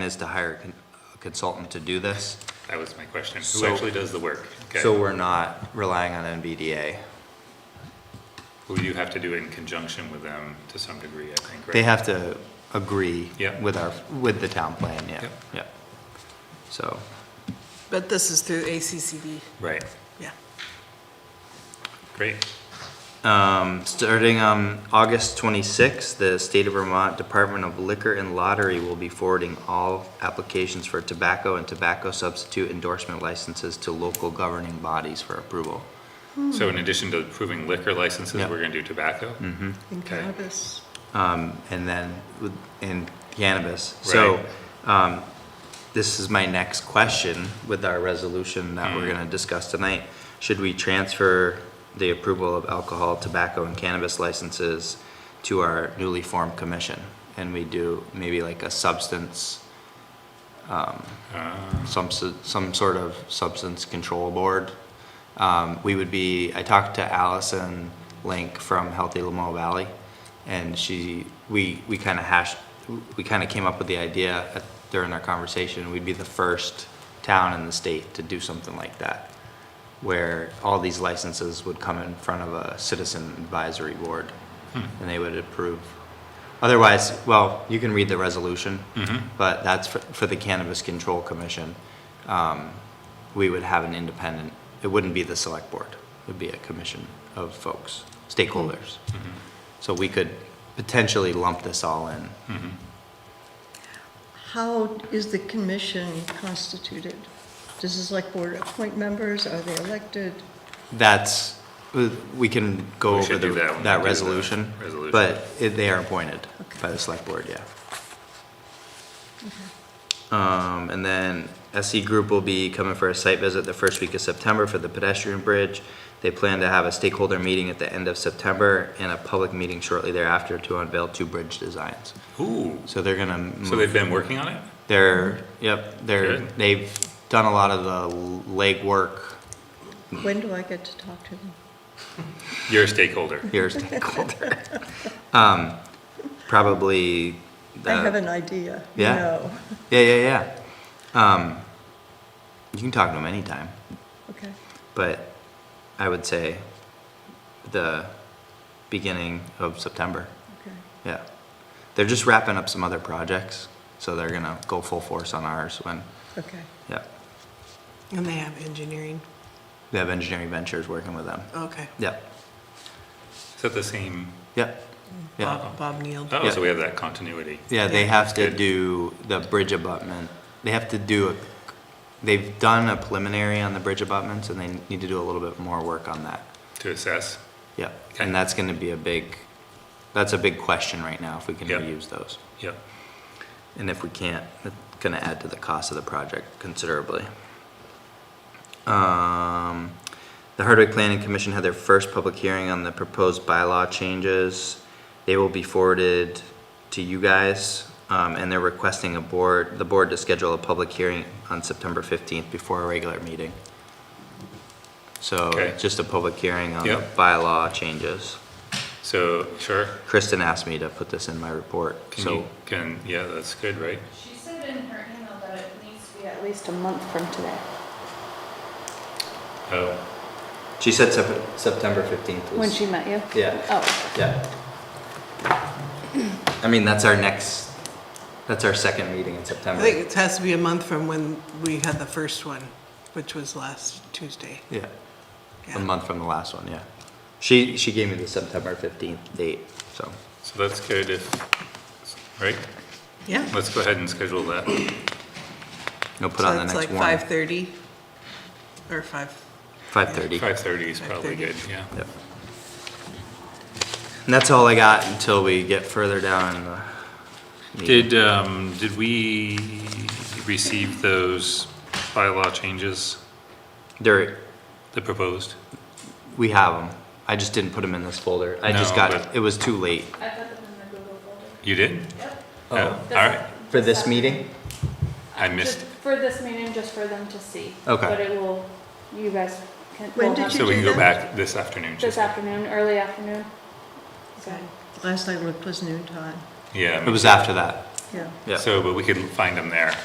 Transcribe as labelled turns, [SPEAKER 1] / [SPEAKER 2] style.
[SPEAKER 1] is to hire a con- a consultant to do this,
[SPEAKER 2] That was my question. Who
[SPEAKER 1] So-
[SPEAKER 2] actually does the work? Okay.
[SPEAKER 1] so we're not relying on NVDA.
[SPEAKER 2] Well, you have to do it in conjunction with them to some degree, I think, right?
[SPEAKER 1] They have to agree
[SPEAKER 2] Yeah.
[SPEAKER 1] with our, with the town plan, yeah,
[SPEAKER 2] Yep.
[SPEAKER 1] yeah. So,
[SPEAKER 3] But this is through ACCD,
[SPEAKER 2] Right,
[SPEAKER 3] yeah.
[SPEAKER 2] great.
[SPEAKER 1] um, starting on August twenty-sixth, the State of Vermont Department of Liquor and Lottery will be forwarding all applications for tobacco and tobacco substitute endorsement licenses to local governing bodies for approval.
[SPEAKER 2] So in addition to approving liquor licenses,
[SPEAKER 1] Yeah. Mm-hmm.
[SPEAKER 2] we're gonna do tobacco?
[SPEAKER 3] In
[SPEAKER 2] Okay.
[SPEAKER 3] cannabis.
[SPEAKER 1] um, and then with- in cannabis. So, um, this is my next question with our resolution that we're gonna discuss tonight. Should we transfer the approval of alcohol, tobacco, and cannabis licenses to our newly formed commission? And we do maybe like a substance, um, some, s- some sort of substance control board? Um, we would be, I talked to Allison Link from Healthy Lamo Valley, and she, we, we kind of hashed, we kind of came up with the idea at- during our conversation, we'd be the first town in the state to do something like that, where all these licenses would come in front of a citizen advisory board, and they would approve. Otherwise, well, you can read the resolution, but that's for, for the Cannabis Control Commission. Um, we would have an independent, it wouldn't be the select board, it would be a commission of folks, stakeholders. So we could potentially lump this all in.
[SPEAKER 4] How is the commission constituted? Does the select board appoint members? Are they elected?
[SPEAKER 1] That's, uh, we can go
[SPEAKER 2] We
[SPEAKER 1] over
[SPEAKER 2] should
[SPEAKER 1] the,
[SPEAKER 2] do that when we do
[SPEAKER 1] that
[SPEAKER 2] the
[SPEAKER 1] resolution.
[SPEAKER 2] resolution.
[SPEAKER 1] But it- they are appointed by
[SPEAKER 4] Okay.
[SPEAKER 1] the select board, yeah. Um, and then SE Group will be coming for a site visit the first week of September for the pedestrian bridge. They plan to have a stakeholder meeting at the end of September and a public meeting shortly thereafter to unveil two bridge designs.
[SPEAKER 2] Ooh,
[SPEAKER 1] So they're gonna.
[SPEAKER 2] so
[SPEAKER 1] move-
[SPEAKER 2] they've been working on it?
[SPEAKER 1] They're, yep, they're,
[SPEAKER 2] Good.
[SPEAKER 1] they've done a lot of the legwork
[SPEAKER 4] When do I get to talk to them?
[SPEAKER 2] You're a stakeholder.
[SPEAKER 1] your stakeholder. Um, probably.
[SPEAKER 4] I
[SPEAKER 1] uh,
[SPEAKER 4] have an idea, you
[SPEAKER 1] yeah.
[SPEAKER 4] know.
[SPEAKER 1] Yeah, yeah, yeah. Um, you can talk to them anytime,
[SPEAKER 4] Okay,
[SPEAKER 1] but I would say the beginning of September.
[SPEAKER 4] okay.
[SPEAKER 1] Yeah. They're just wrapping up some other projects, so they're gonna go full force on ours when,
[SPEAKER 4] Okay.
[SPEAKER 1] yeah.
[SPEAKER 3] And they have engineering,
[SPEAKER 1] We have engineering ventures working with them.
[SPEAKER 3] okay.
[SPEAKER 1] Yep,
[SPEAKER 2] Is that the same?
[SPEAKER 1] yep, yeah.
[SPEAKER 3] Bob Bob Neal.
[SPEAKER 2] Oh,
[SPEAKER 1] Yeah.
[SPEAKER 2] so we have that continuity.
[SPEAKER 1] Yeah, they have to
[SPEAKER 2] Good.
[SPEAKER 1] do the bridge abutment. They have to do, a. they've done a preliminary on the bridge abutments and they need to do a little bit more work on that.
[SPEAKER 2] To assess?
[SPEAKER 1] Yeah,
[SPEAKER 2] Okay.
[SPEAKER 1] and that's gonna be a big, that's a big question right now, if we can
[SPEAKER 2] Yeah.
[SPEAKER 1] reuse those.
[SPEAKER 2] Yep.
[SPEAKER 1] And if we can't, it's gonna add to the cost of the project considerably. Um, the Hardwick Planning Commission had their first public hearing on the proposed bylaw changes. They will be forwarded to you guys, um, and they're requesting a board, the board to schedule a public hearing on September fifteenth before a regular meeting. So,
[SPEAKER 2] Okay.
[SPEAKER 1] just a public hearing on the
[SPEAKER 2] Yep.
[SPEAKER 1] bylaw changes.
[SPEAKER 2] So, sure.
[SPEAKER 1] Kristen asked me to put this in my report,
[SPEAKER 2] Can
[SPEAKER 1] so.
[SPEAKER 2] you, can, yeah, that's good, right?
[SPEAKER 5] She said in her email that it needs to be at least a month from today.
[SPEAKER 2] Oh,
[SPEAKER 1] She said Sep- September fifteenth was.
[SPEAKER 5] When she met you?
[SPEAKER 1] Yeah.
[SPEAKER 5] Oh,
[SPEAKER 1] Yeah. I mean, that's our next, that's our second meeting in
[SPEAKER 3] I
[SPEAKER 1] September.
[SPEAKER 3] think it has to be a month from when we had the first one, which was last Tuesday.
[SPEAKER 1] Yeah,
[SPEAKER 3] Yeah.
[SPEAKER 1] a month from the last one, yeah. She, she gave me the September fifteenth date, so.
[SPEAKER 2] so that's good if, right?
[SPEAKER 3] Yeah.
[SPEAKER 2] Let's go ahead and schedule that.
[SPEAKER 1] We'll put on the
[SPEAKER 3] So it's
[SPEAKER 1] next
[SPEAKER 3] like
[SPEAKER 1] one.
[SPEAKER 3] five thirty, or five,
[SPEAKER 1] Five thirty.
[SPEAKER 2] Five thirty is probably
[SPEAKER 3] 5:30.
[SPEAKER 2] good, yeah.
[SPEAKER 1] Yep. And that's all I got until we get further down in the. meeting.
[SPEAKER 2] Did, um, did we receive those bylaw changes,
[SPEAKER 1] There,
[SPEAKER 2] the proposed?
[SPEAKER 1] we have them. I just didn't put them in this folder. I just
[SPEAKER 2] No,
[SPEAKER 1] got,
[SPEAKER 2] but-
[SPEAKER 1] it was too late.
[SPEAKER 5] I put them in the Google folder.
[SPEAKER 2] You did?
[SPEAKER 5] Yep.
[SPEAKER 2] Oh, all right.
[SPEAKER 1] For this meeting?
[SPEAKER 2] I missed,
[SPEAKER 5] Just For this meeting, just for them to see.
[SPEAKER 1] Okay.
[SPEAKER 5] But it will, you guys can.
[SPEAKER 4] When
[SPEAKER 5] will
[SPEAKER 4] did
[SPEAKER 5] have
[SPEAKER 4] you
[SPEAKER 2] so we can
[SPEAKER 4] do
[SPEAKER 2] go back this afternoon.
[SPEAKER 5] This
[SPEAKER 2] just-
[SPEAKER 5] afternoon, early afternoon. So,
[SPEAKER 4] Last I looked was noon time.
[SPEAKER 2] Yeah.
[SPEAKER 1] It was after that.
[SPEAKER 4] yeah.
[SPEAKER 1] Yeah.
[SPEAKER 2] So, but we could find them there.